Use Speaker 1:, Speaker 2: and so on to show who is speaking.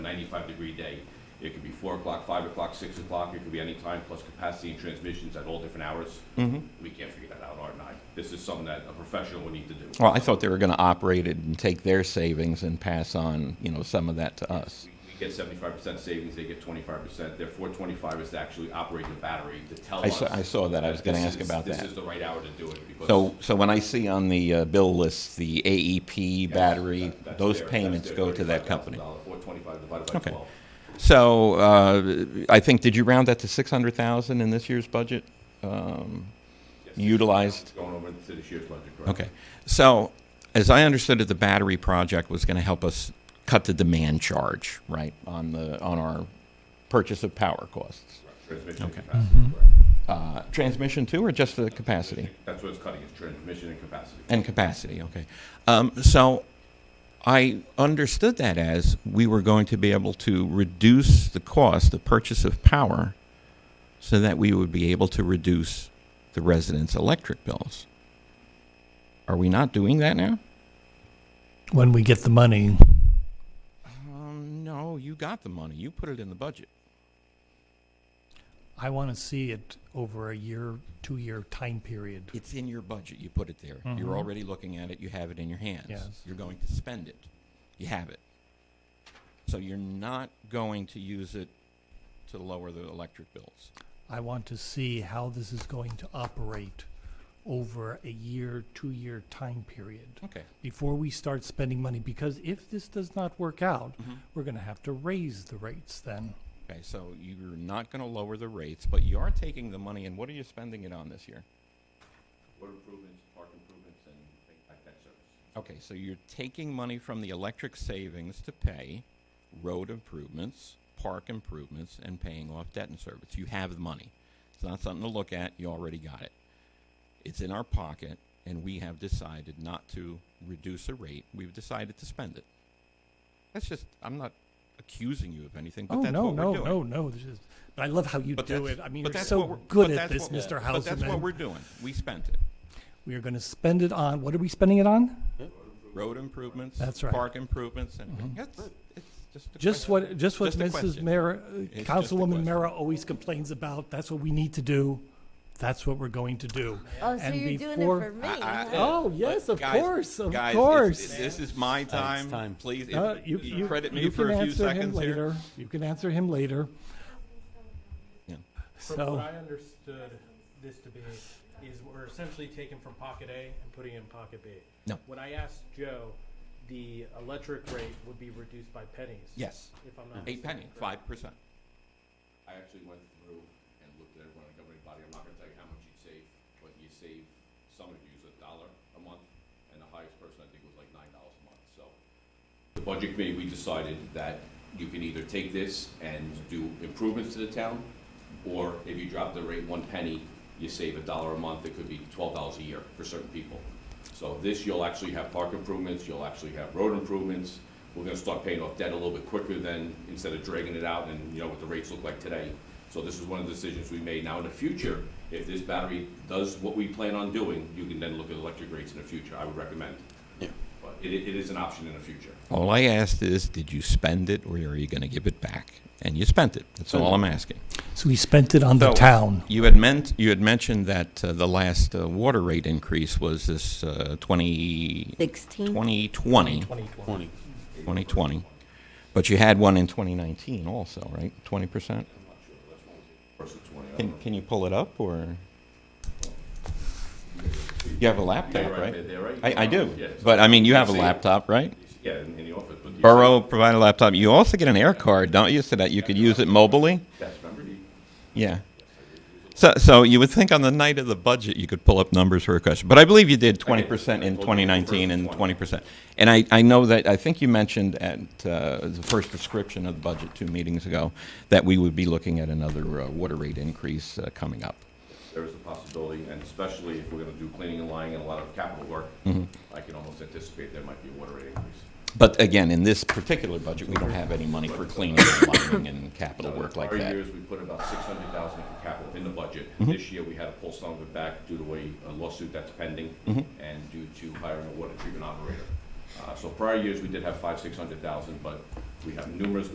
Speaker 1: ninety-five degree day. It could be four o'clock, five o'clock, six o'clock, it could be any time, plus capacity and transmissions at all different hours.
Speaker 2: Mm-hmm.
Speaker 1: We can't figure that out, Art and I. This is something that a professional would need to do.
Speaker 2: Well, I thought they were going to operate it and take their savings and pass on, you know, some of that to us.
Speaker 1: We we get seventy-five percent savings, they get twenty-five percent. Their four twenty-five is to actually operate the battery to tell
Speaker 2: I
Speaker 1: us.
Speaker 2: saw, I saw that. I was going to
Speaker 1: this
Speaker 2: ask
Speaker 1: is-
Speaker 2: about
Speaker 1: This is
Speaker 2: that.
Speaker 1: the right hour to do it because.
Speaker 2: So, so when I see on the uh, bill list the AEP
Speaker 1: Yes,
Speaker 2: battery,
Speaker 1: that- that's
Speaker 2: those
Speaker 1: their- that's
Speaker 2: payments
Speaker 1: their
Speaker 2: go to that company.
Speaker 1: $35,000, Four twenty-five divided by
Speaker 2: Okay.
Speaker 1: twelve.
Speaker 2: So, uh, I think, did you round that to 600,000 in this year's budget? Um,
Speaker 1: Yes.
Speaker 2: Utilized?
Speaker 1: Going over into this year's budget, correct?
Speaker 2: Okay. So, as I understood it, the battery project was going to help us cut the demand charge, right, on the, on our purchase of power costs.
Speaker 1: Transmission
Speaker 2: Okay.
Speaker 1: capacity, correct.
Speaker 2: Uh, Transmission too, or just the capacity?
Speaker 1: That's what it's cutting, is transmission and capacity.
Speaker 2: And capacity, okay. Um, so I understood that as we were going to be able to reduce the cost, the purchase of power, so that we would be able to reduce the residents' electric bills. Are we not doing that now?
Speaker 3: when we get the money.
Speaker 2: Um, no, you got the money. You put it in the budget.
Speaker 3: I want to see it over a year, two-year time period.
Speaker 2: It's in your budget. You put it there. You're already looking at it. You have it in your hands.
Speaker 3: Yes.
Speaker 2: You're going to spend it. You have it. So you're not going to use it to lower the electric bills.
Speaker 3: I want to see how this is going to operate over a year, two-year time period
Speaker 2: Okay.
Speaker 3: before we start spending money. Because if this does not work out,
Speaker 2: Mm-hmm.
Speaker 3: we're going to have to raise the rates then.
Speaker 2: Okay. So you're not going to lower the rates, but you are taking the money and what are you spending it on this year?
Speaker 1: Water improvements, park improvements, and things like that service.
Speaker 2: Okay. So you're taking money from the electric savings to pay road improvements, park improvements, and paying off debt and service. You have the money. It's not something to look at. You already got it. It's in our pocket, and we have decided not to reduce a rate. We've decided to spend it. That's just, I'm not accusing you of anything, but
Speaker 3: Oh,
Speaker 2: that's
Speaker 3: no,
Speaker 2: what we're
Speaker 3: no,
Speaker 2: doing.
Speaker 3: no, no. This is- But I love how you
Speaker 2: But
Speaker 3: do
Speaker 2: that's-
Speaker 3: it. I mean,
Speaker 2: but
Speaker 3: you're
Speaker 2: that's what
Speaker 3: so
Speaker 2: we're-
Speaker 3: good
Speaker 2: but
Speaker 3: at
Speaker 2: that's
Speaker 3: this,
Speaker 2: what-
Speaker 3: Mr.
Speaker 2: But that's what we're
Speaker 3: Houseman.
Speaker 2: doing. We spent it.
Speaker 3: We are going to spend it on, what are we spending it on?
Speaker 2: Road improvements.
Speaker 3: That's right. Mm-hmm.
Speaker 2: Park improvements and, that's, it's just a
Speaker 3: Just
Speaker 2: question.
Speaker 3: what, just what
Speaker 2: Just a
Speaker 3: Mrs.
Speaker 2: question.
Speaker 3: Mara,
Speaker 2: just a
Speaker 3: Councilwoman
Speaker 2: question.
Speaker 3: Mara always complains about, that's what we need to do, that's what we're going to do.
Speaker 4: Oh, so
Speaker 3: And
Speaker 4: you're doing it
Speaker 3: before-
Speaker 4: for me?
Speaker 2: I- I-
Speaker 4: huh?
Speaker 3: Oh, yes,
Speaker 2: But
Speaker 3: of
Speaker 2: guys-
Speaker 3: course, of
Speaker 2: guys, it's-
Speaker 3: course.
Speaker 2: it- This is my time,
Speaker 5: time.
Speaker 2: please,
Speaker 3: Uh,
Speaker 2: if- you credit me
Speaker 3: you
Speaker 2: for
Speaker 3: can
Speaker 2: a few
Speaker 3: answer him
Speaker 2: seconds here.
Speaker 3: later. You can answer him later.
Speaker 2: Yeah.
Speaker 6: From
Speaker 3: So,
Speaker 6: what I understood this to be, is we're essentially taking from pocket A and putting in pocket B.
Speaker 2: No.
Speaker 6: When I asked Joe, the electric rate would be reduced by pennies.
Speaker 2: Yes,
Speaker 6: If I'm not.
Speaker 2: eight penny,
Speaker 6: mistaken,
Speaker 2: five percent.
Speaker 1: I actually went through and looked at everyone and everybody, I'm not gonna tell you how much you'd save, but you save, some of you use a dollar a month, and the highest person I think was like nine dollars a month, so. The budget committee, we decided that you can either take this and do improvements to the town, or if you drop the rate one penny, you save a dollar a month, it could be twelve dollars a year for certain people. So this, you'll actually have park improvements, you'll actually have road improvements, we're gonna start paying off debt a little bit quicker than, instead of dragging it out and, you know, what the rates look like today. So this is one of the decisions we made. Now, in the future, if this battery does what we plan on doing, you can then look at electric rates in the future, I would recommend.
Speaker 5: Yeah.
Speaker 1: But it, it is an option in the future.
Speaker 2: All I asked is, did you spend it or are you going to give it back? And you spent it. That's all I'm asking.
Speaker 3: so we spent it on the
Speaker 2: So,
Speaker 3: town.
Speaker 2: You had meant, you had mentioned that uh, the last uh, water rate increase was this uh, 20,
Speaker 4: 16.
Speaker 2: 2020,
Speaker 6: 2020.
Speaker 5: 20.
Speaker 2: 2020. But you had one in 2019 also, right? 20%?
Speaker 1: Versus twenty, I don't
Speaker 2: Can,
Speaker 1: know.
Speaker 2: can you pull it up or? You have a laptop,
Speaker 1: right there,
Speaker 2: right?
Speaker 1: there, right?
Speaker 2: I, I do.
Speaker 1: Yeah.
Speaker 2: But I mean, you have a
Speaker 1: See it.
Speaker 2: laptop, right?
Speaker 1: Yeah, in, in the office, but. you-
Speaker 2: Borough provide a laptop. You also get an air card, don't you, so that you could use it mobily?
Speaker 1: Yes, remember, you-
Speaker 2: Yeah. So, so you would think on the night of the budget, you could pull up numbers for a question. But I believe you did 20% in 2019 and 20%. And I, I know that, I think you mentioned at uh, the first description of the budget two meetings ago that we would be looking at another uh, water rate increase uh, coming up.
Speaker 1: there is a possibility, and especially if we're gonna do cleaning and lining and a lot of capital work,
Speaker 2: Mm-hmm.
Speaker 1: I can almost anticipate there might be a water rate increase.
Speaker 2: But again, in this particular budget, we don't have any money for cleaning and lining and capital work like
Speaker 1: Prior
Speaker 2: that. Mm-hmm.
Speaker 1: years, we put about six hundred thousand for capital in the budget. This year, we had to pull some of it back due to a- a lawsuit that's pending
Speaker 2: Mm-hmm.
Speaker 1: and due to hiring a water treatment operator. Uh, so prior years, we did have five, six hundred thousand, but we have numerous